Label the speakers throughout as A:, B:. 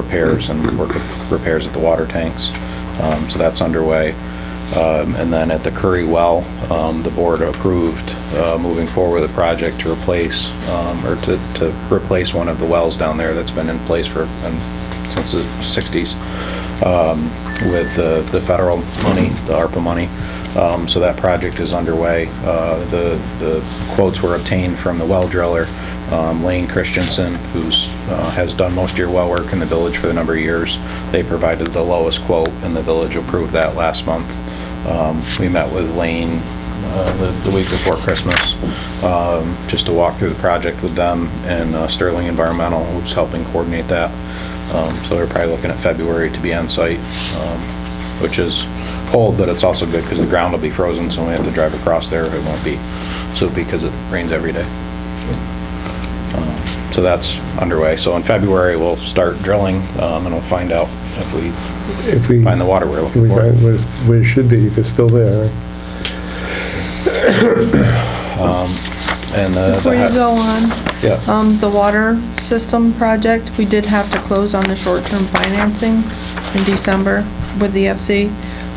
A: repairs and work with repairs at the water tanks. Um, So that's underway. Um, And then at the Curry Well, um, the board approved uh, moving forward with a project to replace, um, or to to replace one of the wells down there that's been in place for, um, since the 60s with the, the federal money, the ARPA money. Um, so that project is underway. Uh, the, the quotes were obtained from the well driller, um, Lane Christensen, who's, uh, has done most of your well work in the village for a number of years. They provided the lowest quote and the village approved that last month. Um, we met with Lane, uh, the, the week before Christmas, um, just to walk through the project with them and uh, Sterling Environmental, who's helping coordinate that. Um, So they're probably looking at February to be on site, um, which is cold, but it's also good because the ground will be frozen, so when we have to drive across there, it won't be soupy because it rains every day. Um, So that's underway. So in February, we'll start drilling um, and we'll find out if we
B: If we,
A: find the water we're
B: if we
A: looking for.
B: find where it's- where it should be, if it's still there.
A: And, uh,
C: Before you
A: the-
C: go on,
A: Yeah,
C: um, the water system project, we did have to close on the short-term financing in December with the FC.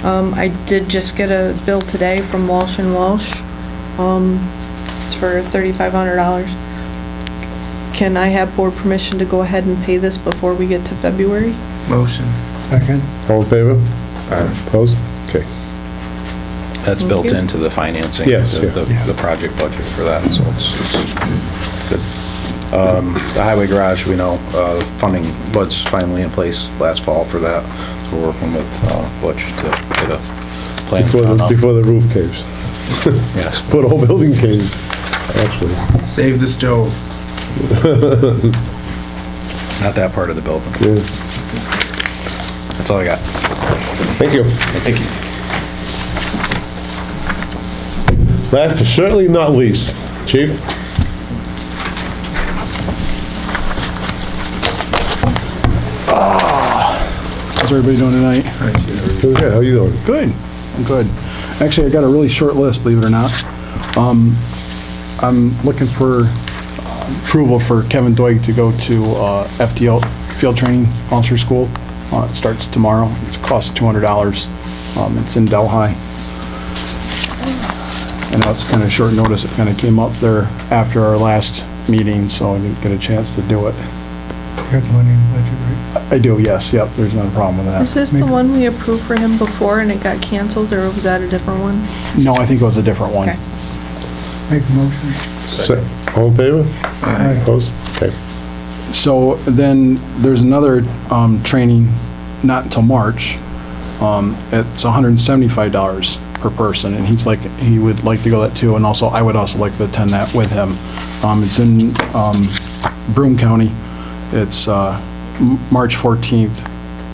C: Um, I did just get a bill today from Walsh and Walsh. Um, it's for thirty-five hundred dollars. Can I have board permission to go ahead and pay this before we get to February?
D: Motion.
B: Second. All in favor? Opposed? Okay.
A: that's built
C: you.
A: into the financing.
B: Yes,
A: the-
B: yeah.
A: the- The project budget for that, so it's it's good. Um, The highway garage, we know, uh, funding was finally in place last fall for that, so we're working with uh, Butch to get a plan.
B: Before,
A: drawn
B: the-
A: up.
B: before the roof caves,
A: Yes,
B: before the whole building caves, actually.
D: Save the stove.
A: not that part of the building.
B: Yeah.
A: That's all I got.
B: Thank you.
A: Thank you.
B: Last but certainly not least, chief?
E: How's everybody doing tonight?
B: Doing good, how you doing?
E: Good. I'm good. Actually, I got a really short list, believe it or not. Um, I'm looking for approval for Kevin Doig to go to uh, FTL Field Training Officer School. Uh, It starts tomorrow. It costs $200. Um, It's in Delhi. I know it's kind of short notice. It kind of came up there after our last meeting, so I didn't get a chance to do it. I do, yes, yep, there's no problem with that.
C: Is this the one we approved for him before and it got canceled, or was that a different one?
E: No, I think it was a different one.
C: Okay.
F: Make a motion.
B: Se- All in favor? Opposed? Okay.
E: So then there's another um, training, not until March. Um, It's $175 per person, and he's like, he would like to go that too, and also, I would also like to attend that with him. Um, It's in um, Broome County. It's uh, M- March 14th.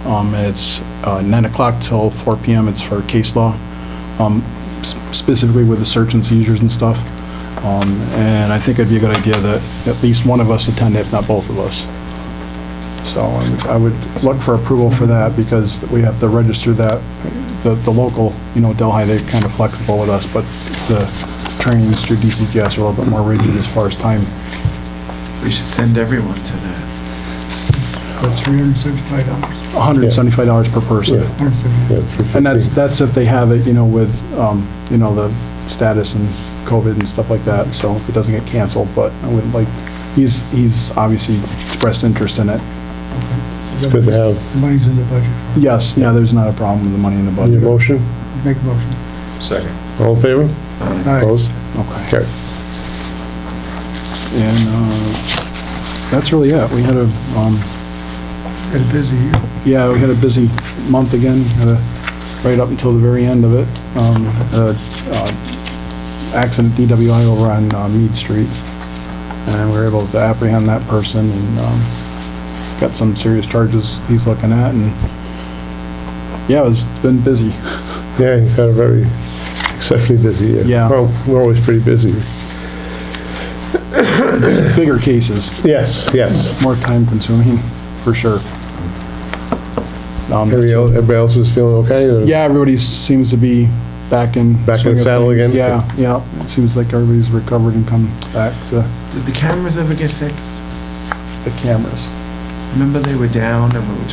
E: Um, and It's uh, 9 o'clock till 4 PM. It's for case law, um, s- specifically with the search and seizures and stuff. Um, And I think it'd be a good idea that at least one of us attend, if not both of us. So I would- I would look for approval for that because we have to register that, the, the local, you know, Delhi, they're kind of flexible with us, but the trainings through DCGS are a little bit more rigid as far as time.
D: We should send everyone to that.
F: That's three hundred and seventy-five dollars.
E: $175 per person.
B: Yeah, yeah, three
E: And that's,
B: fifteen.
E: that's if they have it, you know, with, um, you know, the status and COVID and stuff like that, so if it doesn't get canceled, but I would like, he's, he's obviously expressed interest in it.
B: It's good to have.
F: Money's in the budget. for it.
E: Yes, yeah, there's not a problem with the money in the
B: Any
E: budget.
B: motion?
F: Make a motion.
A: Second.
B: All in favor?
F: Aye.
B: Opposed?
E: Okay,
B: Okay.
E: and, uh, that's really it. We had a, um,
F: Had a busy year.
E: yeah, we had a busy month again, had a- right up until the very end of it. Um, uh, uh, Accident DWI over on uh, Mead Street, and we were able to apprehend that person and um, got some serious charges he's looking at, and yeah, it's been busy.
B: Yeah, you've had a very exceptionally busy year.
E: Yeah.
B: Well, we're always pretty busy.
E: Bigger cases,
B: Yes, yes.
E: more time consuming, for sure. Um,
B: Everybody else- everybody else is feeling okay? or-
E: Yeah, everybody seems to be back in.
B: Back in
E: swing
B: the
E: of
B: saddle again?
E: things. Yeah, yeah. It seems like everybody's recovered and come back to
D: Did the cameras ever get fixed?
E: the cameras.
D: Remember they were down and we were